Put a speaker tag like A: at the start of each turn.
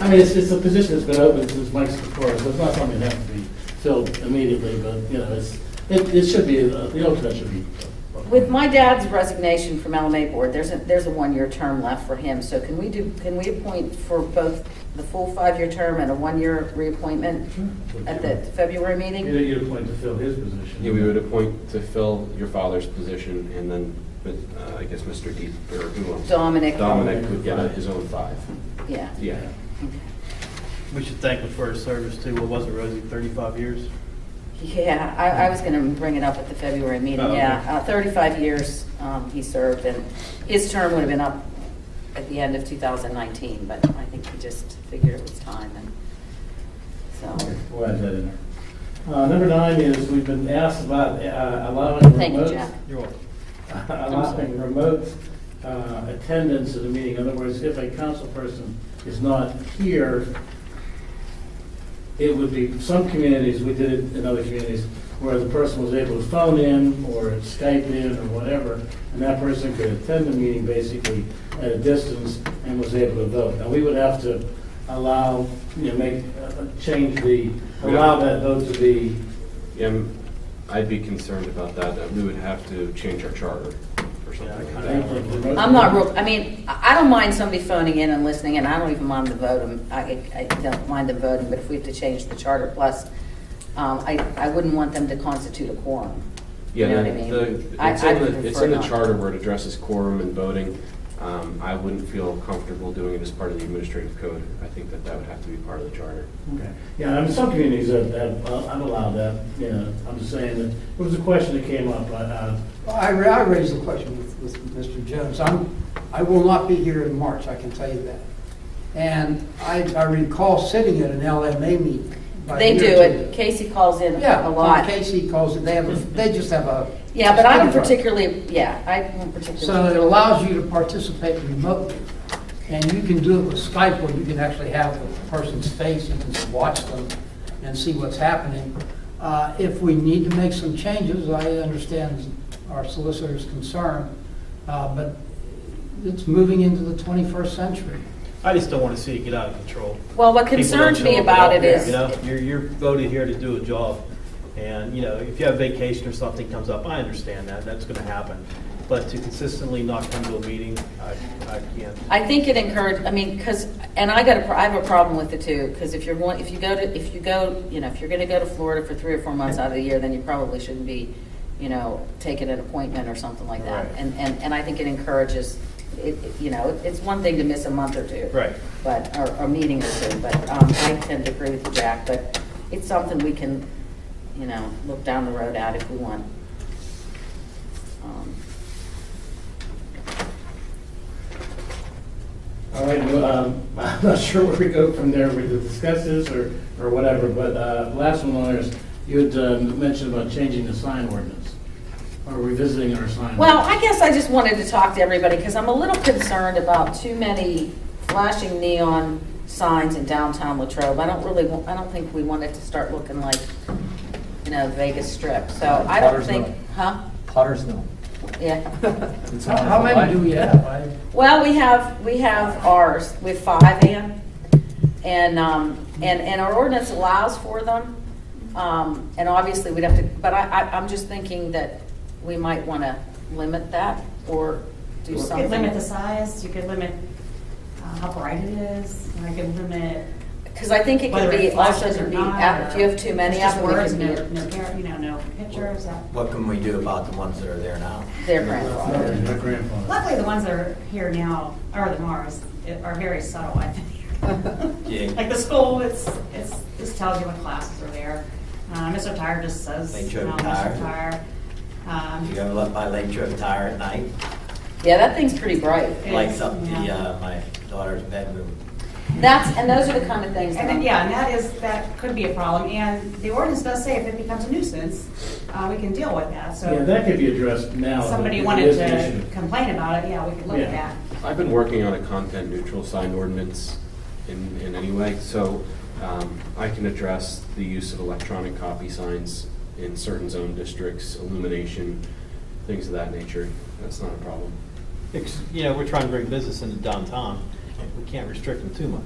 A: I mean, it's, it's a position that's been open since Mike's before, so it's not something that has to be filled immediately, but, you know, it's, it, it should be, uh, the alternate should be.
B: With my dad's resignation from LMA Board, there's a, there's a one-year term left for him, so can we do, can we appoint for both the full five-year term and a one-year reappointment at the February
A: You
B: meeting?
A: know, you're appointed to fill his position.
C: Yeah, we would appoint to fill your father's position, and then, uh, I guess Mr. Deep, or who else?
B: Dominic?
C: Dominic would get his own five.
B: Yeah.
C: Yeah.
B: Okay.
D: We should thank him for his service too. What was it, Rosie, 35 years?
B: Yeah, I, I was going to bring it up at the February meeting,
D: Oh,
B: yeah.
D: okay.
B: Uh, 35 years um, he served, and his term would have been up at the end of 2019, but I think he just figured it was time, and so,
A: Why is that in there? Uh, number nine is, we've been asked about uh, allowing
B: Thank you,
A: remote-
B: Jack.
D: You're welcome.
A: Allowing remote uh, attendance at a meeting, in other words, if a council person is not here, it would be, some communities, we did it in other communities, where the person was able to phone in or Skype in or whatever, and that person could attend the meeting basically at a distance and was able to vote. Now, we would have to allow, you know, make, uh, change the, allow that vote to be,
C: Yeah, I'm- I'd be concerned about that, that we would have to change our charter or something like
A: I
C: that.
A: don't think remote.
B: I'm not real, I mean, I I don't mind somebody phoning in and listening, and I don't even mind the voting, I, I don't mind them voting, but if we have to change the charter, plus, um, I, I wouldn't want them to constitute a quorum. You know
C: Yeah,
B: what I
C: the,
B: mean?
C: the-
B: I-
C: it's
B: I
C: in
B: would
C: the, it's
B: prefer
C: in the
B: not.
C: charter where it addresses quorum and voting. Um, I wouldn't feel comfortable doing it as part of the administrative code. I think that that would have to be part of the charter.
A: Okay. Yeah, I mean, some communities have, have uh, I've allowed that, you know, I'm just saying that, it was a question that came up, but, uh,
E: Well, I ra- I raised the question with- with Mr. Jones. I'm, I will not be here in March, I can tell you that. And I I recall sitting at an LMA meeting. by a
B: They
E: year
B: do
E: or
B: it,
E: two.
B: Casey calls in
E: Yeah,
B: a lot.
E: Casey calls it, they have, a- they just have a.
B: Yeah, but I don't
E: speakerphone.
B: particularly, yeah, I don't particularly.
E: So it allows you to participate remotely. And you can do it with Skype where you can actually have the person's face, you can watch them and see what's happening. Uh, If we need to make some changes, I understand our solicitor's concern, uh, but it's moving into the 21st century.
D: I just don't want to see it get out of control.
B: Well, what
D: People don't
B: concerns me
D: show up
B: about
D: out
B: it
D: there,
B: is-
D: You know, you're, you're voted here to do a job, and, you know, if you have vacation or something comes up, I understand that, that's going to happen. But to consistently not come to a meeting, I, I can't.
B: I think it encouraged, I mean, because, and I got a, pro- I have a problem with it too, because if you're going, if you go to, if you go, you know, if you're gonna go to Florida for three or four months out of the year, then you probably shouldn't be, you know, taking an appointment or something like that.
D: Right.
B: And, and, and I think it encourages, it, it- you know, it's one thing to miss a month or two.
D: Right.
B: But, or, or meeting or two, but, um, I tend to agree with you, Jack, but it's something we can, you know, look down the road at if we want. Um,
A: all right, well, um, I'm not sure where we go from there, we could discuss this or, or whatever, but, uh, last one, lawyers, you had um, mentioned about changing the sign ordinance, or revisiting our sign.
B: Well,
A: ordinance.
B: I guess I just wanted to talk to everybody, because I'm a little concerned about too many flashing neon signs in downtown Latrobe. I don't really, wa- I don't think we want it to start looking like, you know, Vegas Strip, so I don't
F: Potter's
B: think,
F: Mill.
B: huh?
F: Potter's Mill.
B: Yeah.
F: It's
E: How
F: on
E: how
F: the
E: many
F: line.
E: do we have? I-
B: Well, we have, we have ours with five in, and, um, and, and our ordinance allows for them. Um, and obviously, we'd have to, but I, I, I'm just thinking that we might want to limit that, or do
G: You
B: something.
G: could limit the size, you could limit uh, how bright it is, and I could limit.
B: Because I think it can
G: whether
B: be, also
G: flashes or
B: can be,
G: not,
B: app- if you have too
G: or
B: many
G: it's
B: of
G: just
B: them, it
G: words,
B: can
G: no-
B: be
G: No, char- you know, no pictures. uh, that-
H: What can we do about the ones that are there now?
B: their
A: Sorry,
B: grandfather.
A: my grandfather.
G: Luckily, the ones that are here now, or the Mars, it- are very subtle, I
H: Yeah.
G: think. Like the school, it's, it's, this tells you what classes are there. Uh, Mr. Tire just says.
H: Make sure
G: um,
H: the tire.
G: Mr. Tire. Um,
H: You go up by Lake Trip Tire at night,
B: Yeah, that thing's pretty bright.
H: lights up the,
G: Yeah.
H: uh, my daughter's bedroom.
B: That's, and those are the kind of things that
G: And
B: I'm.
G: then, yeah, and that is, that could be a problem, and the ordinance does say if it becomes a nuisance, uh, we can deal with that, so.
A: Yeah, that could be addressed now.
G: If somebody
A: but it
G: wanted
A: is an issue.
G: to complain about it, yeah, we could look at
A: Yeah.
G: that.
C: I've been working on a content neutral sign ordinance in, in any way, so um, I can address the use of electronic copy signs in certain zone districts, illumination, things of that nature. That's not a problem.
D: Ex- You know, we're trying to bring business into downtown. We can't restrict them too much.